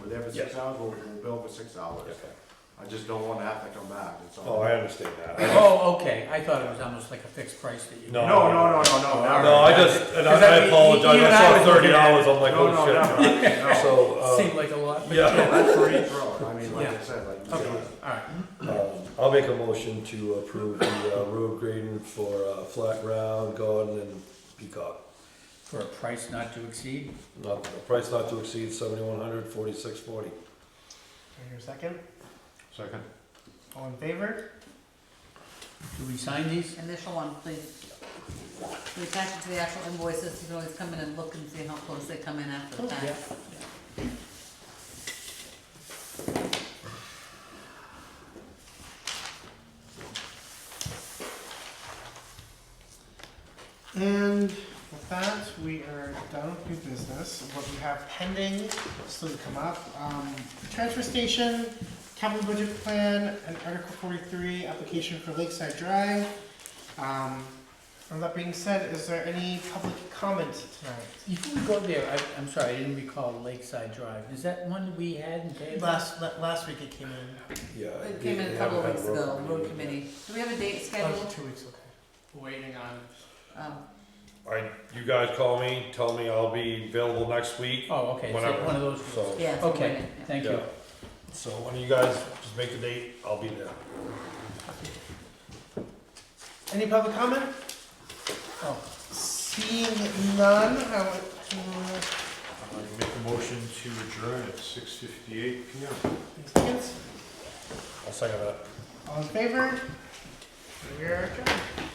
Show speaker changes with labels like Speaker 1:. Speaker 1: there for six
Speaker 2: Yes.
Speaker 1: hours, we'll, we'll bill for six hours.
Speaker 2: Okay.
Speaker 1: I just don't wanna have to come back, it's all.
Speaker 2: Oh, I understand that.
Speaker 3: Oh, okay, I thought it was almost like a fixed price that you.
Speaker 2: No.
Speaker 1: No, no, no, no, no, never.
Speaker 2: No, I just, and
Speaker 3: Because I
Speaker 2: I I
Speaker 3: mean,
Speaker 2: apologize,
Speaker 3: even
Speaker 2: I
Speaker 3: I was
Speaker 2: saw thirty
Speaker 3: looking at
Speaker 2: dollars, I'm like,
Speaker 1: No, no,
Speaker 2: oh
Speaker 1: never,
Speaker 2: shit.
Speaker 1: no.
Speaker 2: So, uh,
Speaker 3: Seemed like a lot, but.
Speaker 2: yeah.
Speaker 1: That's free throw, I mean, like I
Speaker 3: Yeah.
Speaker 1: said, like, you
Speaker 3: Okay,
Speaker 1: said,
Speaker 3: all right,
Speaker 2: Um, I'll make a motion to approve the uh, road grading for uh, Flat Ground, Garden, and Peacock.
Speaker 3: for a price not to exceed,
Speaker 2: Not, the price not to exceed seventy-one hundred, forty-six forty.
Speaker 4: I hear a second?
Speaker 1: second,
Speaker 4: All in favor?
Speaker 3: do we sign these?
Speaker 5: Initial one, please. We attach it to the actual invoices, you can always come in and look and see how close they come in after the fact.
Speaker 3: Yeah.
Speaker 4: And with that, we are done with new business. What we have pending still to come up, um, transfer station, capital budget plan, and Article forty-three, application for Lakeside Drive. Um, and that being said, is there any public comment tonight?
Speaker 3: You can go there, I, I'm sorry, I didn't recall Lakeside Drive, is that one we had in Dayton?
Speaker 4: Last, la- last week it came in,
Speaker 2: Yeah. I
Speaker 5: It came in
Speaker 2: didn't-
Speaker 5: a couple of
Speaker 2: haven't
Speaker 5: weeks
Speaker 2: had
Speaker 5: ago, road
Speaker 2: yet.
Speaker 5: committee. Do we have a date
Speaker 4: oh,
Speaker 5: scheduled?
Speaker 4: two weeks, okay. Waiting on.
Speaker 5: Um,
Speaker 2: I, you guys call me, tell me I'll be available next week,
Speaker 3: Oh, okay, so
Speaker 2: Whatever.
Speaker 3: one of those,
Speaker 2: so.
Speaker 5: Yeah, it's
Speaker 3: Okay.
Speaker 5: waiting, yeah.
Speaker 3: thank you.
Speaker 2: Yeah. So one of you guys just make the date, I'll be there.
Speaker 4: Any public comment?
Speaker 3: Oh,
Speaker 4: Seeing none, I would uh, to
Speaker 1: I make a motion to adjourn at six fifty-eight P M.
Speaker 4: Seconds.
Speaker 2: I'll second that.
Speaker 4: All in favor? We are adjourned.